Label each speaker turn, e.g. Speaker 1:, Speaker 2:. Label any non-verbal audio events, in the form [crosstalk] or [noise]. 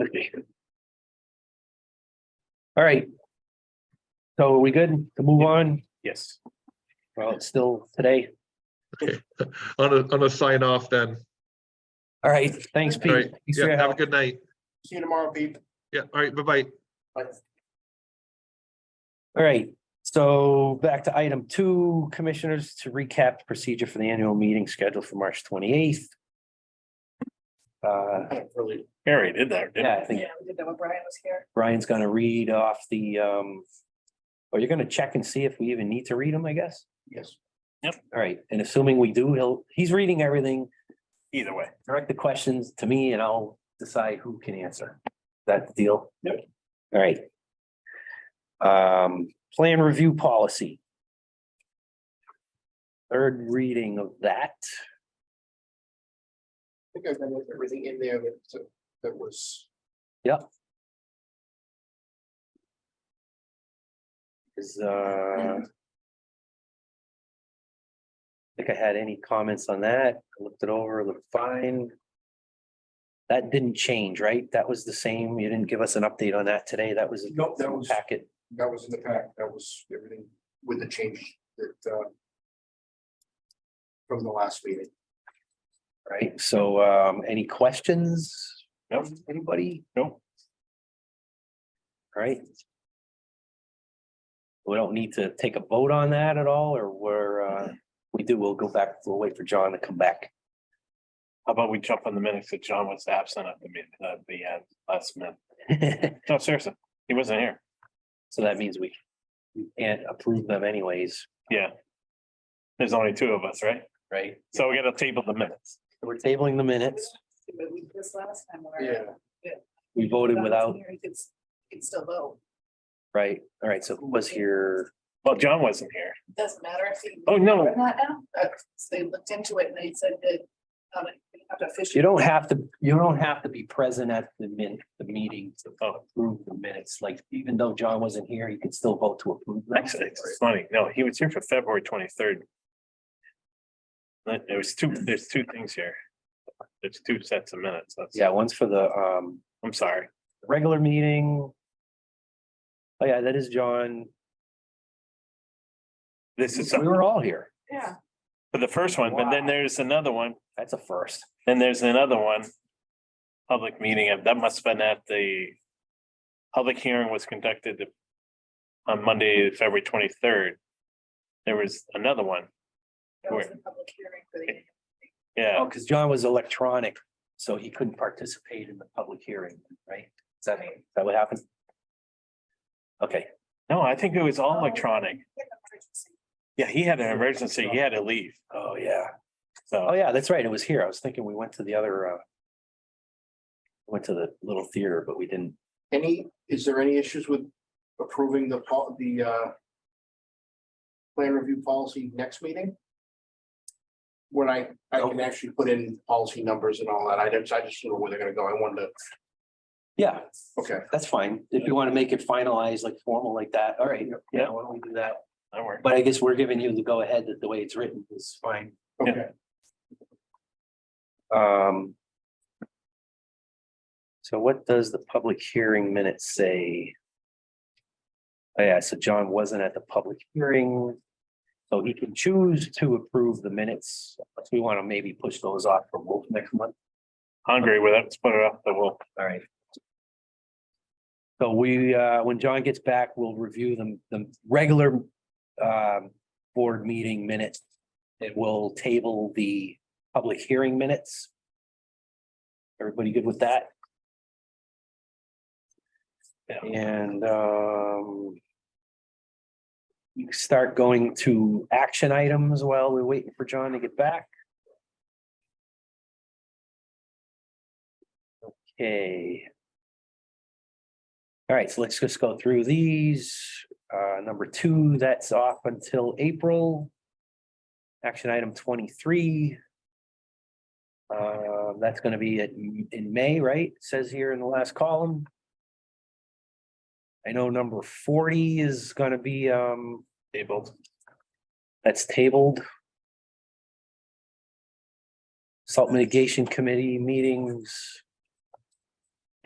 Speaker 1: Okay. All right. So are we good to move on?
Speaker 2: Yes.
Speaker 1: Well, it's still today.
Speaker 3: Okay, on a, on a sign off then.
Speaker 1: All right, thanks,
Speaker 3: All
Speaker 1: Pete.
Speaker 3: right,
Speaker 1: Thanks for
Speaker 3: yeah,
Speaker 1: your
Speaker 3: have a
Speaker 1: help.
Speaker 3: good night.
Speaker 2: See you tomorrow, Pete.
Speaker 3: Yeah, all right, bye-bye.
Speaker 1: All right, so back to item two, commissioners, to recap the procedure for the annual meeting scheduled for March twenty eighth. Uh,
Speaker 2: Really, Harry did that. didn't
Speaker 1: yeah, I
Speaker 2: he?
Speaker 1: think
Speaker 4: Yeah, we did that when Brian was here.
Speaker 1: Brian's gonna read off the, um, or you're gonna check and see if we even need to read them, I guess.
Speaker 2: Yes,
Speaker 1: All right, and assuming we do, he'll, he's reading everything,
Speaker 2: either way.
Speaker 1: direct the questions to me and I'll decide who can answer. That the deal?
Speaker 2: Yep.
Speaker 1: All right. Um, plan review policy. Third reading of that.
Speaker 5: I think I've been with everything in there that, that was.
Speaker 1: is, uh. I Think I had any comments on that, I looked it over, looked fine. That didn't change, right? That was the same, you didn't give us an update on that today, that was.
Speaker 5: Nope, that was-
Speaker 1: Packet,
Speaker 5: That was in the pack, that was everything with the change that, uh. From the last meeting.
Speaker 1: right, so, um, any questions?
Speaker 2: Nope.
Speaker 1: Anybody?
Speaker 2: Nope.
Speaker 1: All right. We don't need to take a vote on that at all, or we're, uh, we do, we'll go back, we'll wait for John to come back. [laughs]
Speaker 2: How about we jump on the minutes that John was absent at the meeting, at the end, last minute? No, seriously, he wasn't here.
Speaker 1: So that means we we can't approve them anyways,
Speaker 2: Yeah. There's only two of us, right?
Speaker 1: right?
Speaker 2: So we gotta table the minutes.
Speaker 1: We're tabling the minutes.
Speaker 4: But we did this last time. where-
Speaker 1: We voted without,
Speaker 4: You could, s- you could still vote.
Speaker 1: right? All right, so who was here?
Speaker 2: Well, John wasn't here.
Speaker 4: Doesn't matter if you.
Speaker 2: Oh, no.
Speaker 4: Or Not now. That's- They looked into it and they said that. um, you have to officially-
Speaker 1: You don't have to, you don't have to be present at the min, the meeting to
Speaker 2: Oh.
Speaker 1: approve the minutes. Like, even though John wasn't here, you could still vote to approve. them.
Speaker 2: Actually, it's funny. No, he was here for February twenty-third. There was two, there's two things here. There's two sets of minutes. That's,
Speaker 1: Yeah, one's for the um
Speaker 2: I'm sorry.
Speaker 1: regular meeting. Oh, yeah, that is John.
Speaker 2: This is
Speaker 1: We
Speaker 2: for
Speaker 1: were all here.
Speaker 4: Yeah.
Speaker 2: the first one, but then
Speaker 1: Wow.
Speaker 2: there's another one
Speaker 1: That's a first.
Speaker 2: Then there's another one. Public meeting, uh, that must have been at the. Public hearing was conducted. On Monday, February twenty-third. There was another one,
Speaker 4: That was the public hearing for the.
Speaker 2: yeah,
Speaker 1: Oh, because John was electronic, so he couldn't participate in the public hearing, right? Is that, is that what happened? Okay,
Speaker 2: no, I think it was
Speaker 1: Oh.
Speaker 2: all electronic,
Speaker 4: Yeah, emergency.
Speaker 2: yeah, he had an emergency, he had to leave,
Speaker 1: oh, yeah. Oh,
Speaker 2: so,
Speaker 1: yeah, that's right. It was here. I was thinking we went to the other, uh. Went to the little theater, but we didn't.
Speaker 5: Any, is there any issues with approving the, pol- the, uh. Plan review policy next meeting? When I, I can actually put in policy numbers and all that, I just, I just don't know where they're gonna go, I wanted to,
Speaker 1: Yeah,
Speaker 5: okay,
Speaker 1: that's fine. If you want to make it finalized, like formal like that, all right, yeah, why don't we do that?
Speaker 2: that worked.
Speaker 1: But I guess we're giving you the go ahead that the way it's written is fine.
Speaker 5: okay.
Speaker 1: Um. So what does the public hearing minute say? Oh, Yeah, so John wasn't at the public hearing. So he can choose to approve the minutes, but we want to maybe push those off for Wolf next month.
Speaker 2: Hungry with it, let's put it up, but we'll,
Speaker 1: All right. So we, uh, when John gets back, we'll review them, the regular, um, board meeting minutes. It will table the public hearing minutes. Everybody good with that?
Speaker 2: Yeah.
Speaker 1: And, um, you can start going to action items while we're waiting for John to get back. Okay. All right, so let's just go through these. Uh, number two, that's off until April. Action item twenty-three. Uh, that's gonna be at- in May, right? Says here in the last column. I know number forty is gonna be, um,
Speaker 2: tabled,
Speaker 1: that's tabled. Salt mitigation committee meetings.